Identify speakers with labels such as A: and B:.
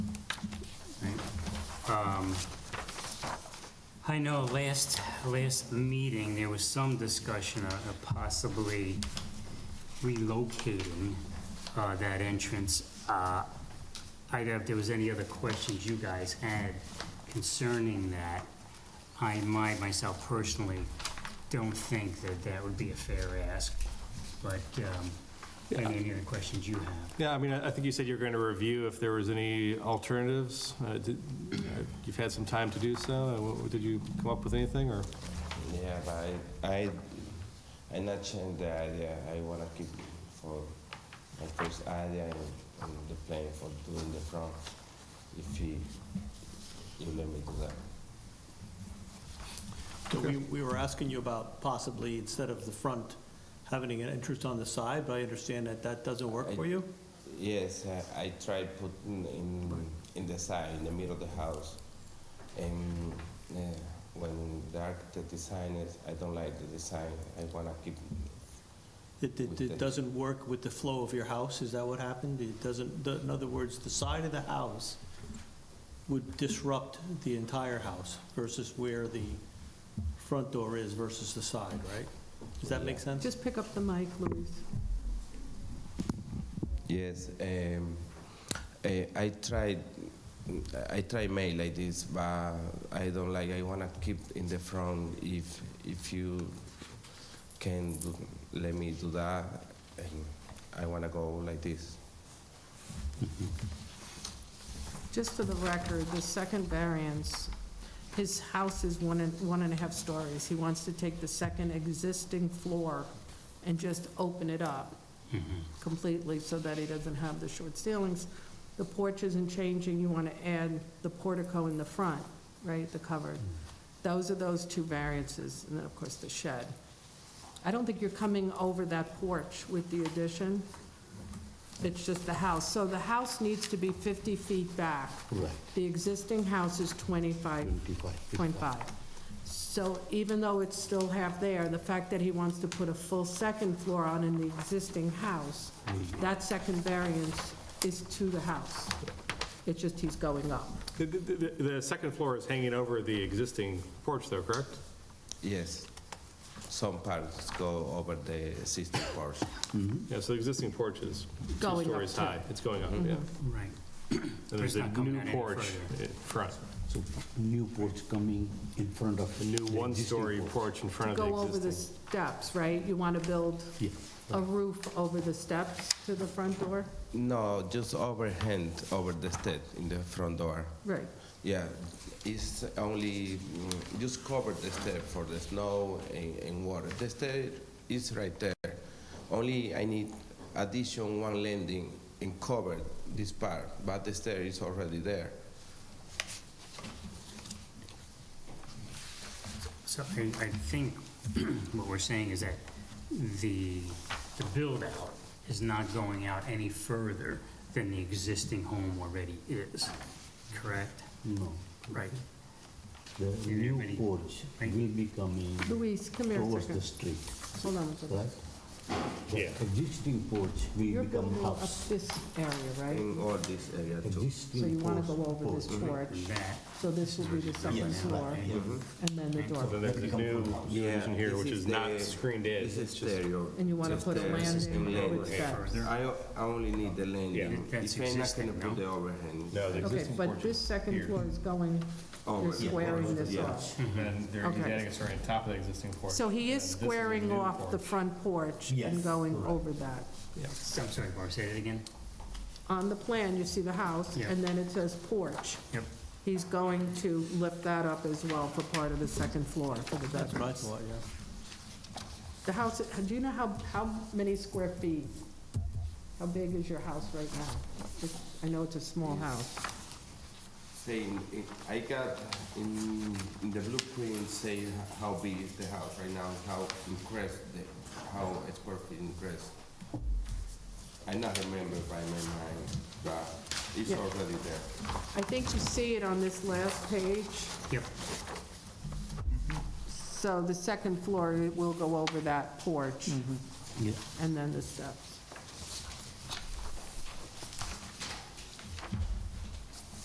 A: Um, I know last, last meeting, there was some discussion of of possibly relocating uh, that entrance. Uh, I doubt if there was any other questions you guys had concerning that. I, my, myself personally, don't think that that would be a fair ask, but um, I mean, any other questions you have?
B: Yeah, I mean, I I think you said you were going to review if there was any alternatives. Uh, did- uh, You've had some time to do so. Uh, wha- Did you come up with anything, or?
C: Yeah, but I, I, I not change the idea. I wanna keep for my first idea and, and the plan for doing the front. If you, you let me do that.
D: So we, we were asking you about possibly, instead of the front, having an entrance on the side, but I understand that that doesn't work for you?
C: Yes, I, I tried putting in in the side, in the middle of the house, and uh, when the architect designed it, I don't like the design. I wanna keep.
D: It, it, it doesn't work with the flow of your house, is that what happened? It doesn't, in other words, the side of the house would disrupt the entire house versus where the front door is versus the side, right? Does that make sense?
E: Just pick up the mic, Louise.
C: Yes, um, I, I tried. I try mail like this, but I don't like. I wanna keep in the front. If if you can do, let me do that, and I wanna go like this.
E: Just for the record, the second variance, his house is one and, one and a half stories. He wants to take the second existing floor and just open it up completely so that he doesn't have the short ceilings. The porch isn't changing, you want to add the portico in the front, right, the covered. Those are those two variances, and then, of course, the shed. I don't think you're coming over that porch with the addition. It's just the house. So the house needs to be 50 feet back. The existing house is 25.5. So even though it's still half there, the fact that he wants to put a full second floor on in the existing house,
F: Mm-hmm.
E: that second variance is to the house. It's just he's going up.
B: The- The the- the second floor is hanging over the existing porch, though, correct?
C: Yes, some parts go over the existing portion.
B: Yeah, so the existing porch is two
E: Going up Mm-hmm.
B: stories
E: too.
B: high. It's going up, yeah.
A: Right.
B: And
A: It's
B: there's a
A: not coming
B: new
A: out any
B: porch
A: further.
B: in front,
F: So new porch coming in front of.
B: a new
F: the
B: one-story
F: existing
B: porch in front of the
E: Go over the
B: existing.
E: steps, right? You want to build
F: Yeah.
E: a roof over the steps to the front door?
C: No, just overhand over the step in the front door.
E: Right.
C: Yeah, it's only mm, just cover the step for the snow and, and water. The step is right there. Only I need addition one landing and cover this part, but the stair is already there.
A: So I, I think what we're saying is that the, the build-out is not going out any further than the existing home already is, correct?
F: No,
A: Right.
F: the
A: Yeah,
F: new
A: many-
F: porch
A: many-
F: will be coming
E: Louise, come here a
F: towards the
E: second.
F: street,
E: Hold on a second.
F: right? The Existing porch
E: You're
F: will become
E: building up
F: house.
E: this area, right?
C: In all this area too.
E: So you
F: Existing
E: want
F: porch.
E: to go over this porch,
A: And that,
E: so this will be the second floor, and then the
B: So
E: door.
B: there's a new addition here,
C: Mm-hmm. this
B: which
C: is
B: is not
C: the-
B: screened in.
C: This is
B: It's just- uh,
C: stereo.
E: And you want to
C: Just
E: put a
C: the system
E: landing
C: landing.
E: with steps.
C: I, o- I only need the landing.
A: That's
C: If I'm not gonna
A: existing,
C: put
A: no?
C: the overhand.
B: No, the
E: Okay,
B: existing porch
E: but this second
B: here. Oh,
E: floor is going,
C: Over,
E: you're
C: yeah,
E: squaring this
C: yeah.
E: off.
B: And they're
E: Okay.
B: adding a story on top of the existing porch.
E: So he
B: And
E: is
B: this a
E: squaring
B: new
E: off the
B: porch.
E: front porch and
F: Yes,
E: going over that.
A: I'm sorry, Barb, say that again?
E: On the plan, you see the house,
A: Yeah.
E: and then it says porch.
A: Yep.
E: He's going to lift that up as well for part of the second floor for the
D: That's what I
E: bedrooms.
D: thought, yeah.
E: The house, do you know how, how many square feet? How big is your house right now? It's- I know it's a small house.
C: Say, in- in- I got in in the blueprint say h- how big is the house right now, how increased, the- how it's perfect increased. I not remember by my mind, but it's
E: Yeah.
C: already there.
E: I think you see it on this last page,
A: Yep,
E: so the second floor will go over that porch,
F: Yeah,
E: and then the steps.